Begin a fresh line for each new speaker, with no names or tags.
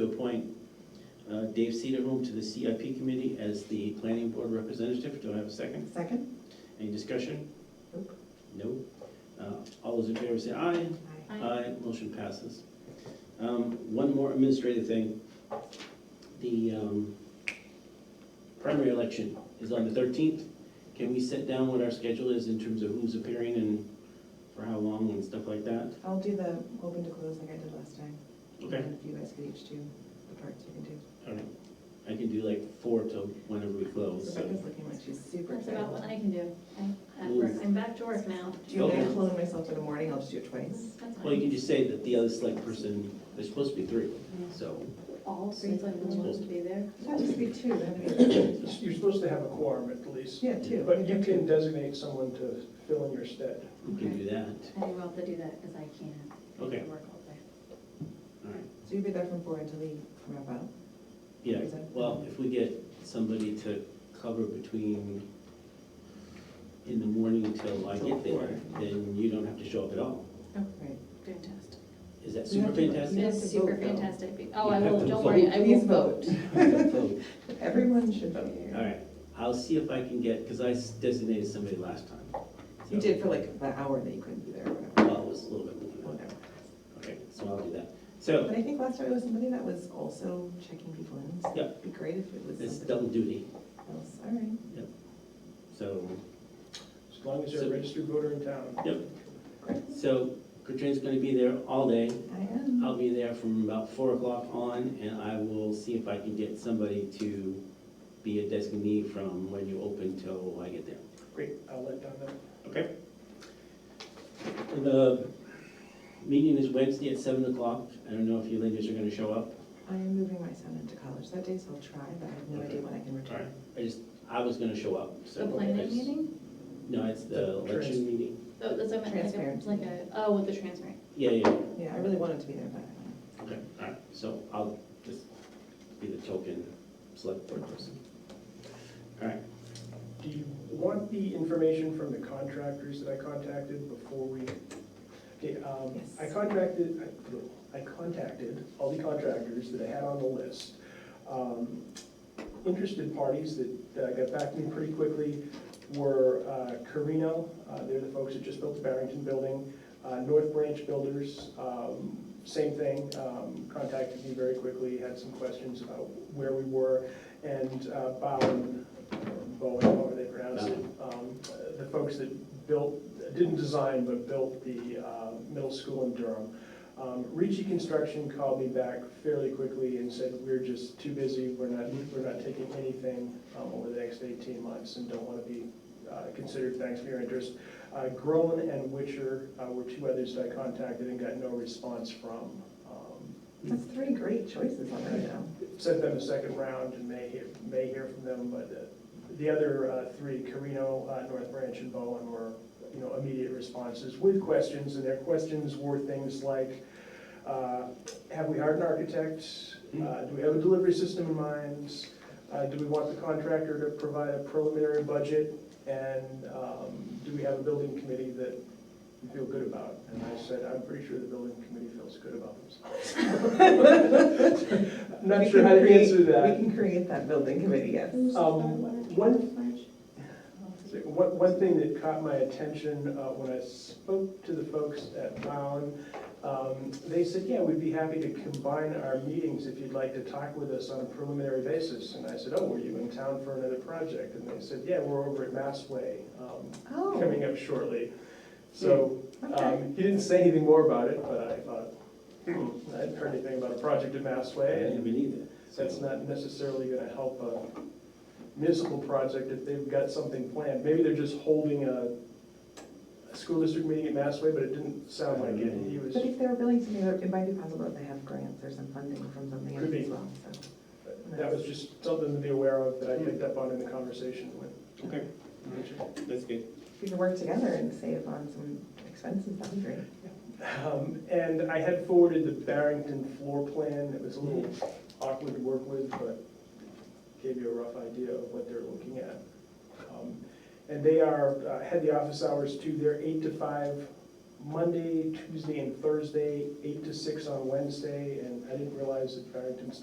uh, Dave Cedarholm to the CIP committee as the planning board representative. Do I have a second?
Second?
Any discussion?
Nope.
No. Uh, All those in favor say aye.
Aye.
Aye.
motion passes. Um, One more administrative thing. The um, primary election is on the thirteenth. Can we set down what our schedule is in terms of who's appearing and for how long and stuff like that?
I'll do the open to close like I did last time.
Okay,
And If you guys could each do the parts you can do.
all right. I can do like four till whenever we close, so.
Rebecca's looking like she's super
That's about what
excited.
I can do. I'm, at work. I'm back to work now.
Do you want me to
Okay.
clone myself in the morning? I'll just do it twice.
That's fine.
Well, you can just say that the other select person, there's supposed to be three, so.
All three selectmen want to be there.
That just be two, that'd be,
You're supposed to have a quorum at least,
yeah, two.
but you can designate someone to fill in your stead.
We can do that.
I will have to do that because I can't. I
Okay.
have to work all day.
All right.
So you'll be there from four until we wrap up?
Yeah,
Is that-
well, if we get somebody to cover between, in the morning till I
Till
get
four.
there, then you don't have to show up at all.
Right.
Fantastic.
Is that
We have
super
to-
fantastic?
You have
It's
to
super
vote, though.
fantastic. Oh, I
You have
will,
to
don't worry, I will
Please
vote.
vote.
So,
Everyone should vote.
All right, I'll see if I can get, because I s- designated somebody last time. So-
You did for like the hour that you couldn't be there or whatever.
Well, it was a little bit more than that.
Whatever.
Okay, so I'll do that. So,
But I think last time it was somebody that was also checking people in, so
Yep.
it'd be great if it was
it's
somebody
double duty,
else. All right.
so,
As long as you're a registered voter in town.
yep.
Great.
So Katrina's gonna be there all day.
I am.
I'll be there from about four o'clock on, and I will see if I can get somebody to be a designee from when you open till I get there.
Great, I'll let Don know.
Okay? And The meeting is Wednesday at seven o'clock. I don't know if you ladies are gonna show up.
I am moving my son into college that day, so I'll try, but I have no idea when I can return.
I just, I was gonna show up, so.
The
I
planning
just-
meeting?
No, it's the election meeting.
Oh, that's, what I meant like a,
Transparency.
like a, oh, with the transparent.
Yeah, yeah,
Yeah, I really wanted to be there, but I
okay, all right. So I'll just be the token select board person. All right,
Do you want the information from the contractors that I contacted before we? Okay, um,
Yes.
I contacted, I- I contacted all the contractors that I had on the list. Um, Interested parties that, that I got back to me pretty quickly were uh, Carino, uh, they're the folks that just built the Barrington building. uh, North Branch Builders, um, same thing, um, contacted me very quickly, had some questions about where we were. And uh, Bowen, Bowen, however they pronounce it, um, the folks that built, didn't design, but built the uh, middle school in Durham. Um, Ricci Construction called me back fairly quickly and said, we're just too busy, we're not, we're not taking anything um, over the next eighteen months and don't want to be uh, considered, thanks for your interest. Uh, Groen and Witcher uh, were two others that I contacted and got no response from. Um,
That's three great choices already now.
Sent them a second round and may hear, may hear from them, but uh, the other uh, three, Carino, uh, North Branch, and Bowen were, you know, immediate responses with questions, and their questions were things like, uh, have we hired an architect? Uh, Do we have a delivery system in mind? Uh, Do we want the contractor to provide a preliminary budget? And um, do we have a building committee that you feel good about? And I said, I'm pretty sure the building committee feels good about themselves. I'm
We
Not
can
sure how to
create-
answer that.
We can create that building committee, yes.
Um, one, one, one thing that caught my attention, uh, when I spoke to the folks at Bound, um, they said, yeah, we'd be happy to combine our meetings if you'd like to talk with us on a preliminary basis. And I said, oh, were you in town for another project? And they said, yeah, we're over at Massway, um,
Oh,
coming up shortly. So,
okay.
um, he didn't say anything more about it, but I thought, hmm, I hadn't heard anything about a project at
I
Massway, and
haven't been either.
that's not necessarily gonna help a municipal project if they've got something planned. Maybe they're just holding a, a school district meeting at Massway, but it didn't sound like it. He was,
But if they're willing to do it, it might be possible that they have grants or some funding from something
Could
else
be.
as well, so.
that was just something to be aware of that I picked up on in the conversation with.
Okay, that's good.
If we can work together and save on some expenses, that'd be great.
Um, and I had forwarded the Barrington floor plan. It was a little awkward to work with, but gave you a rough idea of what they're looking at. Um, And they are, uh, had the office hours too. They're eight to five Monday, Tuesday, and Thursday, eight to six on Wednesday. And I didn't realize that Barrington's